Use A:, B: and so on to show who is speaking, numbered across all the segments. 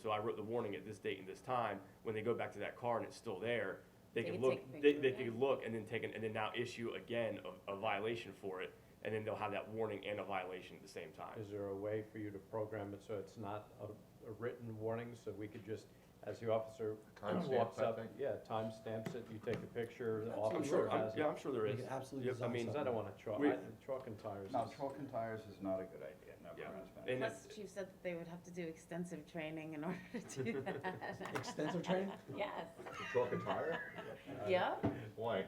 A: So I wrote the warning at this date and this time, when they go back to that car and it's still there, they
B: They
A: can
B: can
A: look,
B: take a
A: they,
B: picture,
A: they
B: yeah.
A: can look and then take, an- and then now issue again a, a violation for it, and then they'll have that warning and a violation at the same time.
C: Is there a way for you to program it so it's not a, a written warning, so we could just, as the officer walks
D: Timestamps, I
C: up?
D: think.
C: Yeah, timestamps it, you take a picture, the
A: I'm
C: officer
A: sure, I'm-
C: has
A: yeah,
C: it.
A: I'm sure there
E: We
A: is.
E: could absolutely
A: Yep, I
E: design
A: mean,
C: Because I don't wanna chalk,
A: We-
C: I, chalk and tires
F: No,
C: is-
F: chalk and tires is not a good idea, no
A: Yeah.
F: comments
A: And
F: made.
B: Plus,
A: it's-
B: Chief said that they would have to do extensive training in order to do that.
E: Extensive training?
B: Yes,
D: Chalk and tire?
B: yeah,
D: Why?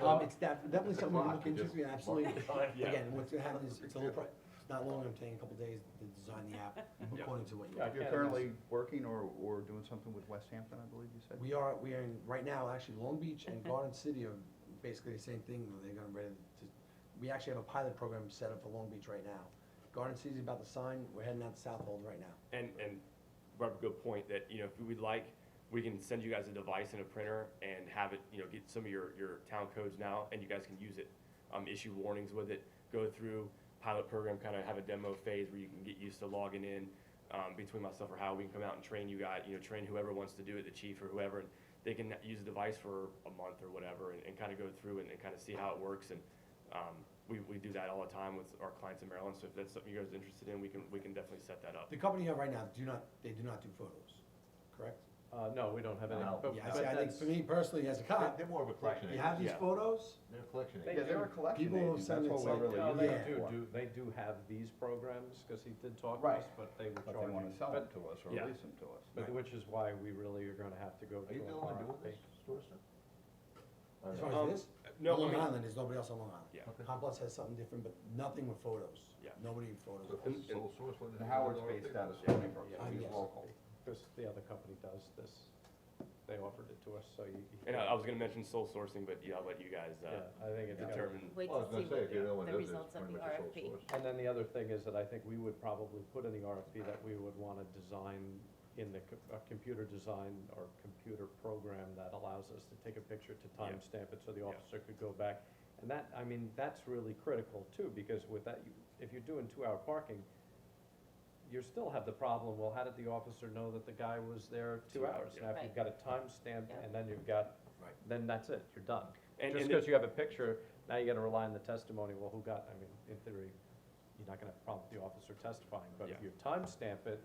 E: Um, it's def- definitely something we'll look
D: Just
E: into, we absolutely,
A: Yeah.
E: again, what's gonna happen is, it's a little, pro- it's not long, I'm taking a couple days to design the app,
A: Yeah.
E: according to what you.
C: Yeah, I
F: You're
C: can't
F: currently working or, or doing something with West Hampton, I believe you said?
E: We are, we are in, right now, actually, Long Beach and Garden City are basically the same thing, where they're gonna ready to, we actually have a pilot program set up for Long Beach right now. Garden City's about to sign, we're heading out to Southold right now.
A: And, and Barbara, good point, that, you know, if we'd like, we can send you guys a device and a printer and have it, you know, get some of your, your town codes now, and you guys can use it. Um, issue warnings with it, go through pilot program, kind of have a demo phase where you can get used to logging in, um, between myself or Hal, we can come out and train you guys, you know, train whoever wants to do it, the chief or whoever, and they can use the device for a month or whatever, and, and kind of go through and, and kind of see how it works, and, um, we, we do that all the time with our clients in Maryland, so if that's something you guys are interested in, we can, we can definitely set that up.
E: The company you have right now, do not, they do not do photos, correct?
C: Uh, no, we don't have any,
D: No.
C: but,
E: Yeah,
C: but
E: I see, I think,
C: that's,
E: for me personally, as a
D: They're-
E: cop,
D: Uh, They're more of a collection
E: you
D: agent.
E: have these
A: Oh, Yeah.
E: photos,
D: They're a collection
C: They-
D: agent.
F: Yeah, they're a collection
E: People will
F: agent,
E: send
F: that's
E: it
F: what we're
E: something.
F: really
C: no, they
E: Yeah.
F: using
C: do,
F: it
C: do, they do have these programs, cause he did talk to
F: Right.
C: us, but they
F: for.
C: were
F: But they wanna
C: charging.
F: sell them
C: But,
F: to us or
A: Yeah.
F: lease them to us.
C: but which is why we really are gonna have to go to.
D: Are you
C: a
D: the only one doing
C: RFP.
D: this sort of stuff?
F: Uh,
D: I
E: as
D: don't know.
E: far
A: Um,
E: as this,
A: No, I
E: Long
A: mean-
E: Island, there's nobody else on Long Island.
A: Yeah.
D: Okay.
E: Complex has something different, but nothing with photos.
A: Yeah.
E: Nobody with
D: So
E: photos.
D: if it's sole source, what is
F: And
D: it?
F: Howard's
D: Another
F: based
D: thing?
F: out of Stony Brook,
C: Yeah.
F: so he's
E: Yes.
F: local.
C: Because the other company does this, they offered it to us, so you. you
A: And I,
C: can't-
A: I was gonna mention soul sourcing, but yeah, I'll let you guys,
C: Yeah,
A: uh,
C: I think it's. gotta-
A: determine.
B: wait
D: Well, I
B: to
D: was
B: see
D: gonna say,
B: what
D: if you're the only one
B: the, the
D: doing this,
B: results of
D: pretty
B: the
D: much a sole
B: RFP.
D: source.
C: And then the other thing is that I think we would probably put in the RFP that we would want to design in the, co- a computer design or computer program that allows us to take a picture to
A: Yeah.
C: timestamp it so the
A: Yeah.
C: officer could go back. And that, I mean, that's really critical too, because with that, you- if you're doing two-hour parking, you still have the problem, well, how did the officer know that the guy was there two
A: Two hours,
C: hours?
A: yeah.
C: Now, if you've got a timestamp
B: Yeah.
C: and then you've got,
E: Right.
C: then that's it, you're done.
A: And, and,
C: Just
A: it-
C: because you have a picture, now you gotta rely on the testimony, well, who got, I mean, in theory, you're not gonna have a problem with the officer testifying, but if
A: Yeah.
C: you timestamp it,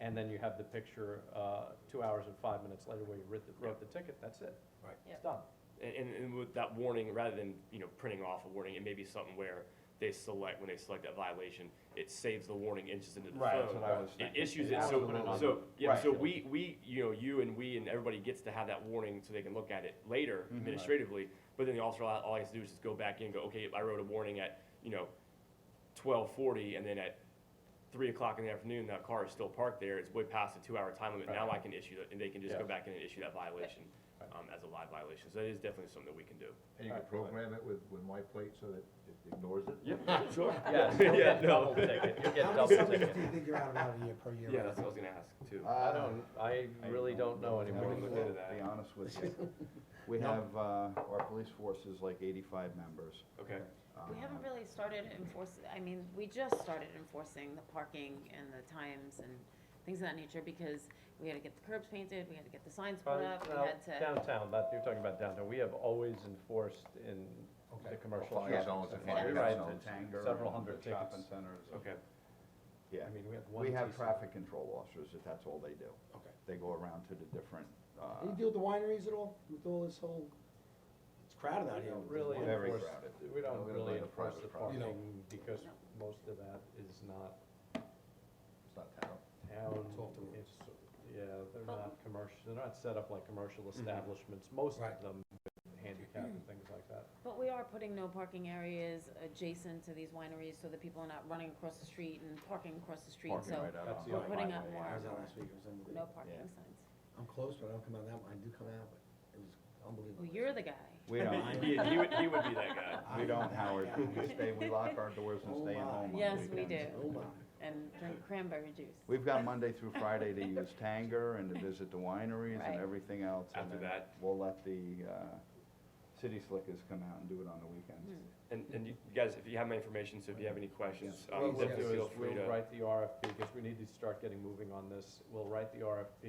C: and then you have the picture, uh, two hours and five minutes later where you wrote the, wrote the ticket, that's it.
E: Right.
C: It's done.
A: and, and with that warning, rather than, you know, printing off a warning, it may be something where they select, when they select that violation, it saves the warning inches into the phone.
F: Right, that's what I was
A: It
F: thinking.
A: issues it,
C: Yeah,
A: so,
C: put it on
A: so, yeah,
F: Right.
A: so we, we, you know, you and we and everybody gets to have that warning so they can look at it later
F: Mhm.
A: administratively. But then the officer, all all he has to do is just go back in and go, okay, I wrote a warning at, you know, twelve forty, and then at three o'clock in the afternoon, that car is still parked there, it's way past the two-hour time limit, now I can issue it, and they can just go
C: Yeah.
A: back in and issue that violation, um, as a live violation, so that is definitely something that we can do.
D: And you can program it with, with my plate so that it ignores it?
A: Yeah, sure.
C: Yes, you'll
A: Yeah,
C: get
A: no,
C: double ticket, you'll get
E: How
C: double
E: many subjects do
C: ticket.
E: you think you're out about a year per year?
A: yeah, that's what I was gonna ask too.
C: I don't, I
F: I
C: really don't know
F: I
A: Never
C: anymore.
F: really
A: looked
F: will,
A: into
F: to
A: that.
F: be honest with you. We
E: No.
F: have, uh, our police force is like eighty-five members.
A: Okay,
B: We haven't
F: Uh,
B: really started enforcing, I mean, we just started enforcing the parking and the times and things of that nature because we had to get the curbs painted, we had to get the signs put
C: Uh,
B: up, we
C: now,
B: had to,
C: Downtown, that, you're talking about downtown, we have always enforced in the
E: Okay.
C: commercial.
D: Fire
F: Yeah.
C: shops.
D: zones and
B: Yeah.
D: fire
B: We
F: Right,
C: write
D: zones.
C: it.
F: Tanger,
C: several hundred
F: Shopping
C: tickets.
F: centers.
A: okay,
F: Yeah.
C: I mean, we have one.
F: We have
C: TC.
F: traffic control officers, if that's all they do.
E: Okay.
F: They go around to the different,
E: Do you
F: uh,
E: deal with the wineries at all, with all this whole, it's crowded out
C: We
E: here.
C: don't
E: with
C: really
E: wine-
F: Very
C: enforce,
F: crowded.
C: we don't
F: We're gonna
C: really
F: let the
C: enforce
F: private
C: the
F: property.
C: parking because most of that is not
D: It's not town.
C: town,
E: It's off the road.
C: it's, yeah, they're
B: Well-
C: not commercial, they're not set up like commercial establishments, most of
E: Mm-hmm. Right.
C: them with handicap and things like that.
B: but we are putting no parking areas adjacent to these wineries so that people are not running across the street and parking across the street,
F: parking
B: so
F: right out
C: That's
F: on
C: the
F: the
C: other
B: we're putting
F: highway,
B: up
F: yeah.
B: more.
E: I was out last week, it was unbelievable.
B: no parking
F: Yeah.
B: signs.
E: I'm close, but I don't come out that one, I do come out, but it was unbelievable.
B: Well, you're the guy.
F: We don't,
A: he, he would, he would be that guy.
F: we
E: I'm
F: don't,
E: that
F: Howard,
E: guy.
F: we stay, we lock our doors and
E: Oh
F: stay at
E: my.
F: home on
B: Yes,
F: the
B: we
F: weekends.
B: do.
E: Oh my,
B: And drink cranberry juice.
F: We've got Monday through Friday to use Tanger and to visit the wineries
B: Right.
F: and everything else. and
A: After
F: then
A: that.
F: We'll let the, uh, city slickers come out and do it on the weekends.
A: And, and you guys, if you have my information, so if you have any questions,
C: What
A: um,
C: we'll
A: definitely
C: do
F: uh,
A: feel
C: is
A: free to.
C: We'll write the RFP, because we need to start getting moving on this, we'll write the RFP